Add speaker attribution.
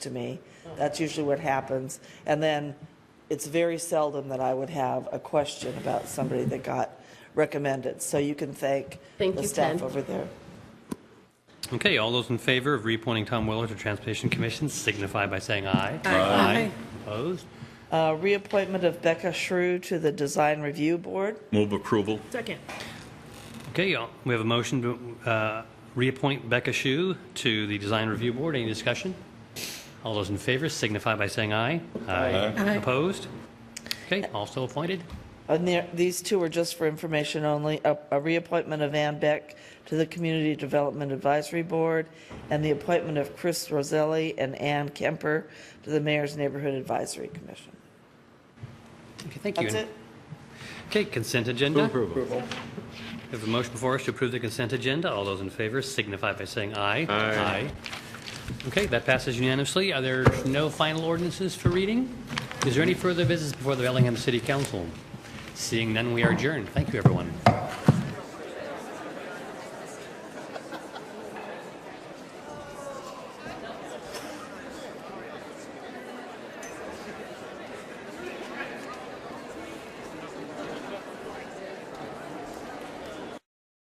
Speaker 1: to me. That's usually what happens. And then it's very seldom that I would have a question about somebody that got recommended. So you can thank
Speaker 2: Thank
Speaker 1: the
Speaker 2: you,
Speaker 1: staff
Speaker 2: Ted.
Speaker 1: over there.
Speaker 3: Okay, all those in favor of reappointing Tom Weller to Transportation Commission signify by saying aye.
Speaker 2: Aye.
Speaker 3: Opposed?
Speaker 1: Uh, Reappointment of Becca Shrew to the Design Review Board.
Speaker 4: Move approval.
Speaker 2: Second.
Speaker 3: Okay, y'all, we have a motion to uh, reappoint Becca Shu to the Design Review Board. Any discussion? All those in favor signify by saying aye.
Speaker 2: Aye.
Speaker 3: Opposed? Okay, also appointed.
Speaker 1: And there- Uh, these two are just for information only. A a reappointment of Ann Beck to the Community Development Advisory Board, and the appointment of Chris Roselli and Ann Kemper to the Mayor's Neighborhood Advisory Commission.
Speaker 3: Okay, thank you.
Speaker 1: That's it?
Speaker 3: Okay, consent agenda. We have a motion before us to approve the consent agenda. All those in favor signify by saying aye. Aye. Okay, that passes unanimously. Are there no final ordinances for reading? Is there any further business before the Bellingham City Council? Seeing none, we are adjourned. Thank you, everyone.